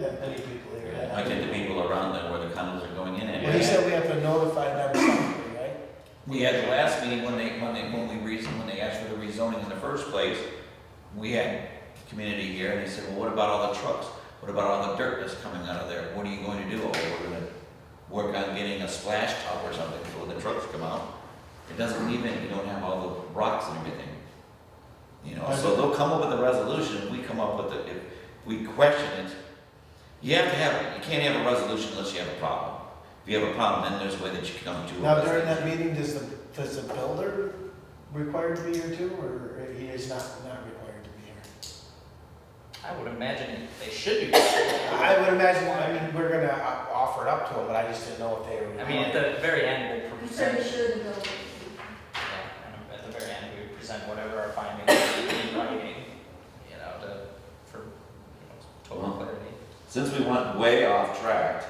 that many people here. I get the people around them where the condos are going in Well, he at. said we have to notify them something, right? We had the last meeting when they, when they, when we reasoned, when they asked for the rezoning in the first place, we had community here and they said, well, what about all the trucks? What about all the dirt that's coming out of there? What are you going to do? Oh, we're gonna work on getting a splash tub or something so when the trucks come out. It doesn't leave it, you don't have all the rocks and everything. You know, so they'll come up with a resolution, if we come up with it, if we question it. You have to have, it. you can't have a resolution unless you have a problem. If you have a problem, then there's a way that you can come to a Now, during that resolution. meeting, does the, does the builder required to be here too, or he is not, not required to be here? I would imagine they should be. I I would imagine, I mean, we're gonna o- offer it up to him, but I just didn't know if they were. mean, at the very end, we'll You said present, it yeah, shouldn't go. I know, at the very end, we present whatever our findings are in writing, you know, to, for, you know, total clarity. Since we went way off track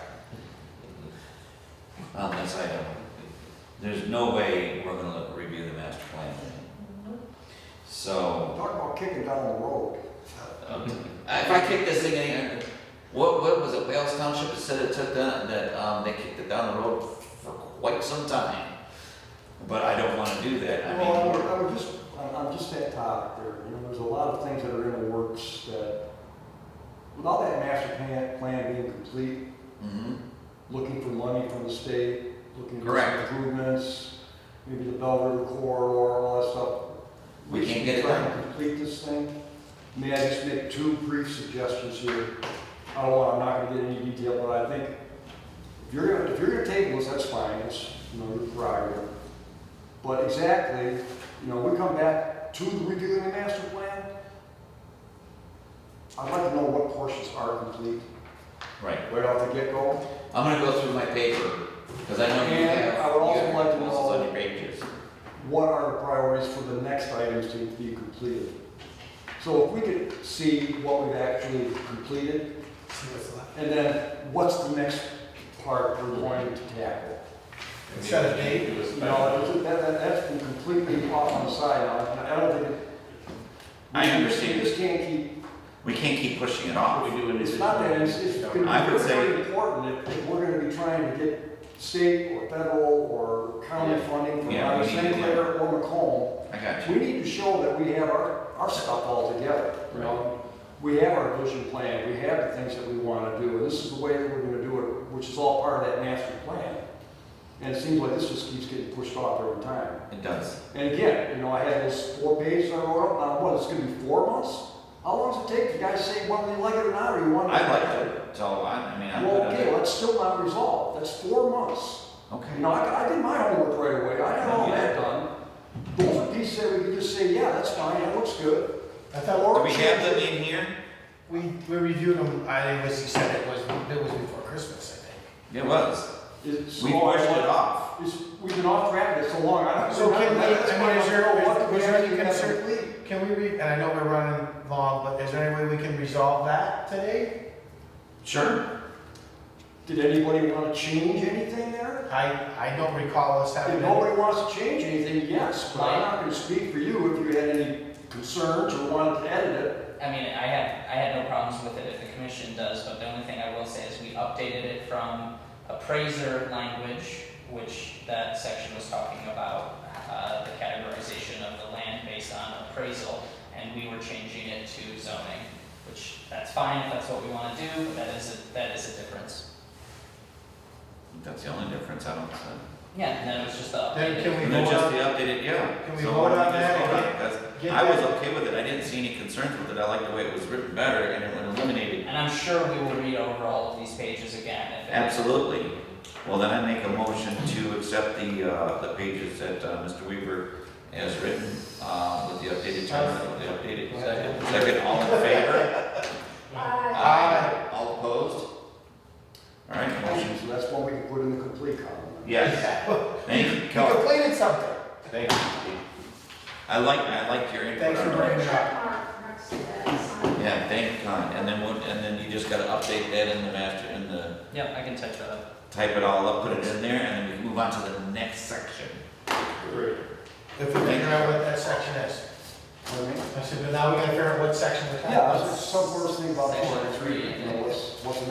on this item, there's no way we're gonna look, review the master plan. So. Talk about kicking down the road. Um, If I kick this thing in, what, what was it, Wales Township that said it took that, that, um, they kicked it down the road for quite some time. But I don't wanna do that, I Well, I mean, would, I would just, I'm, I'm just that topic there, you know, there's a lot of things that are in the works that, without that master plan, plan being complete, mhm. looking for money from the state, looking for some Correct. improvements, maybe the Bell River corridor, all that stuff. We can't should get it try done. and Complete this thing. May I just make two brief suggestions here? I don't want, I'm not gonna get any detail, but I think if you're gonna, if you're gonna table this, that's fine, it's, you know, your prerogative. But exactly, you know, we come back to the redoing the master plan. I'd like to know what portions are complete, right. right off the get-go. I'm gonna go through my paper, cause I know you And have. I would also you have like to proposals know- On your pages, what are the priorities for the next items to be completed? So if we could see what we've actually completed, See what's left. and then what's the next part we're going to tackle? Set a date, You know, that, that, that's been completely off on the side, now, and I don't think. it- I understand. We just can't keep, we can't keep pushing it off. We do it's not that, it's, it's I gonna would be say- very important if, if we're gonna be trying to get state or federal or county funding from Yeah, we either need to- St. Clair or Macomb, I got you, We need to show that we have our, our stuff all together, you know? We have our vision plan, we have the things that we want to do, and this is the way that we're going to do it, which is all part of that master plan. And it seems like this just keeps getting pushed off every time. it does. And again, you know, I had those four pages I wrote up, now what, it's going to be four months? How long does it take? You guys say whether you like it or not, or you want to? I like it, so I, I mean, I'm good Well, on okay, it. that's still not resolved, that's four months. Okay. You know, I, I did my homework right away, I got all that done. Those are pieces that we could just say, yeah, that's fine, that looks good. I thought, Do Or we have them in here? we, we reviewed them, I was, he said it was, it was before Christmas, I It was, It's- we pushed it off. It's, we've been off track for so long, I don't. So can we- that's I mean, why is there- don't know was what we there any actually have concern- complete. think. Can we re, and I know we're running long, but is there any way we can resolve that today? Sure. Did anybody wanna change anything there? I, I don't recall us having. If any- nobody wants to change anything, yes, but I'm not gonna speak for you if you had any concerns or wanted to edit it. I mean, I had, I had no problems with it if the commission does, but the only thing I will say is we updated it from appraiser language, which that section was talking about, uh, the categorization of the land based on appraisal, and we were changing it to zoning, which, that's fine if that's what we wanna do, but that is, a that is a difference. That's the only difference, I don't, see. Yeah, and then it was just the Then can updated. we And then vote just on- the updated, yeah. Can we So vote why don't on we that just and vote on get- it? That's- get I was that- okay with it, I didn't see any concerns with it, I liked the way it was written better and it eliminated. And I'm sure we will read over all of these pages again if it Absolutely. Well, then I make a motion to accept the, uh, the pages that, uh, Mr. Weaver has written, uh, with the updated terms, with the updated. Second. Second, all in favor? Uh, Aye. All opposed? All right, motion. So that's what we can put in the complete column. Yes, thank you, You Kelly. completed something. Thank you. I like, I like your input. Thanks for on that. bringing it up. check mark next to that sign. Yeah, thank God, and then what, and then you just gotta update that in the master, in the, Yep, I can touch that up. type it all up, put it in there, and then we can move on to the next section. If we figure out what that section is. You know what I mean? I said, but now we gotta figure out what section we're talking Yeah, about. that's some worst thing about four and three, you know, what's, what's